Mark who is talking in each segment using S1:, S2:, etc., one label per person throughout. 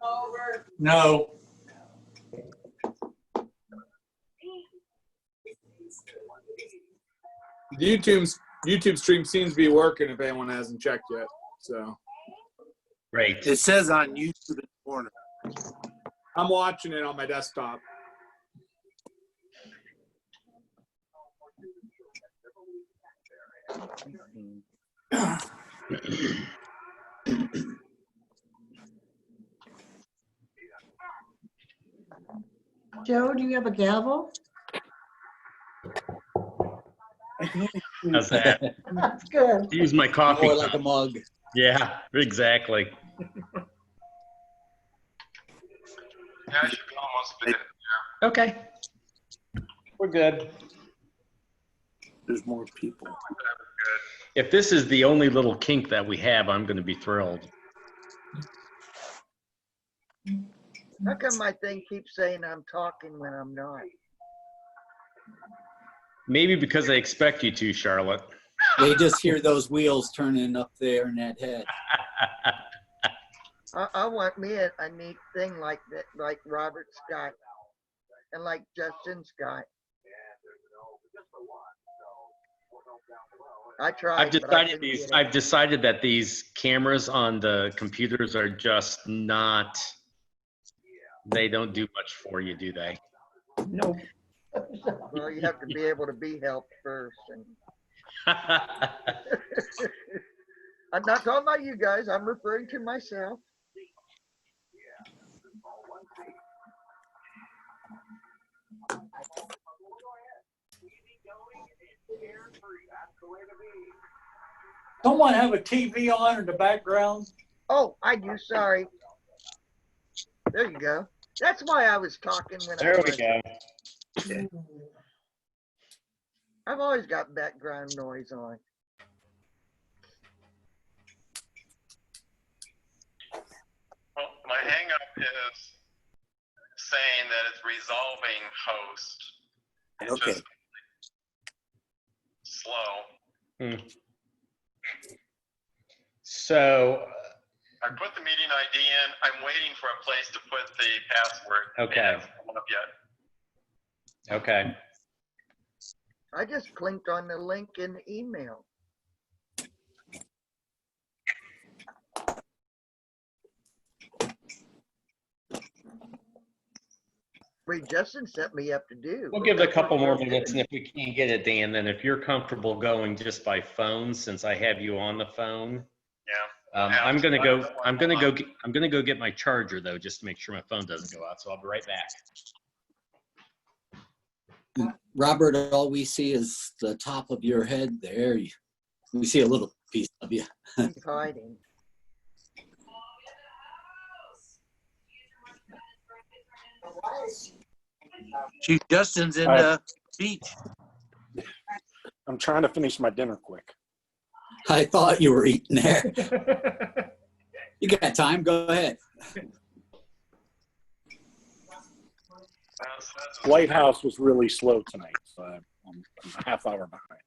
S1: Over.
S2: No. YouTube's YouTube stream seems to be working if anyone hasn't checked yet. So
S3: Great.
S4: It says on YouTube in the corner.
S2: I'm watching it on my desktop.
S1: Joe, do you have a gavel?
S3: How's that?
S1: That's good.
S3: Use my coffee.
S5: More like a
S3: cup.
S5: mug.
S3: Yeah, exactly.
S6: Yeah, I should be almost there.
S3: Okay.
S2: We're good.
S4: There's more people.
S3: If this is the only little kink that we have, I'm going to be thrilled.
S7: How come my thing keeps saying I'm talking when I'm not?
S3: Maybe because I expect you to, Charlotte.
S5: They just hear those wheels turning up there in that head.
S7: I, I want me a, a neat thing like that, like Robert Scott and like Justin Scott. I tried.
S3: I've
S7: but I
S3: decided
S7: couldn't
S3: these.
S7: get it.
S3: I've decided that these cameras on the computers are just not. They don't do much for you, do they?
S1: No.
S7: Well, you have to be able to be helped first. And I'm not talking about you guys. I'm referring to myself.
S8: Someone have a TV on in the background?
S7: Oh, I do. Sorry. There you go. That's why I was talking when I.
S3: there we
S7: was-
S3: go.
S7: I've always got background noise on.
S6: Well, my hangup is saying that it's resolving host. It's
S4: Okay.
S6: just slow.
S3: So
S6: I put the meeting ID in. I'm waiting for a place to put the password. It
S3: Okay.
S6: hasn't come up yet.
S3: okay.
S7: I just clicked on the link in the email. Wait, Justin set me up to do.
S3: We'll give it a couple more minutes, and if we can't get it, Dan, then if you're comfortable going just by phone, since I have you on the phone.
S6: Yeah.
S3: Um, I'm gonna go. I'm gonna go. get- I'm gonna go get my charger though, just to make sure my phone doesn't go out. So I'll be right back.
S5: Robert, all we see is the top of your head there. You- We see a little piece of you.
S7: He's hiding.
S4: Chief Justin's in
S9: All right.
S4: the beach.
S9: I'm trying to finish my dinner quick.
S5: I thought you were eating there. You got time? Go ahead.
S6: White.
S9: Lighthouse was really slow tonight, so I'm I'm a half hour behind.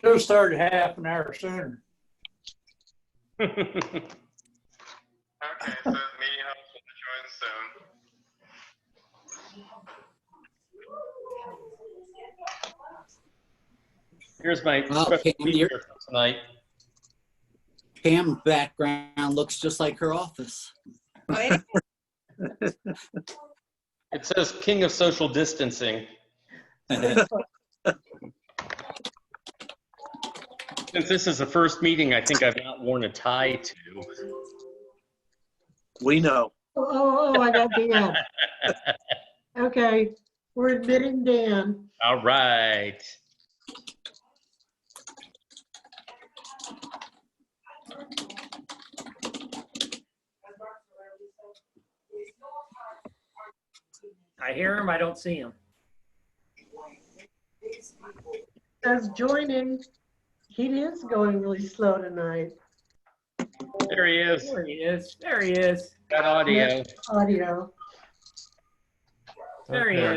S8: Should've started half an hour sooner.
S6: Okay, so the meeting host will join soon.
S3: Here's my
S5: Oh,
S3: special
S5: Pam, you're-
S3: feature for tonight.
S5: Pam's background looks just like her office.
S1: Wait,
S3: It says King of Social Distancing. Since this is the first meeting, I think I've not worn a tie to.
S4: We know.
S1: Oh, oh, oh, I got Dan. Okay, we're admitting Dan.
S3: All right.
S10: I hear him, I don't see him.
S1: Says joining. He is going really slow tonight.
S3: There he is.
S10: There he is, there he is,
S3: Got audio.
S1: Audio.
S10: there he
S9: Okay.
S10: is.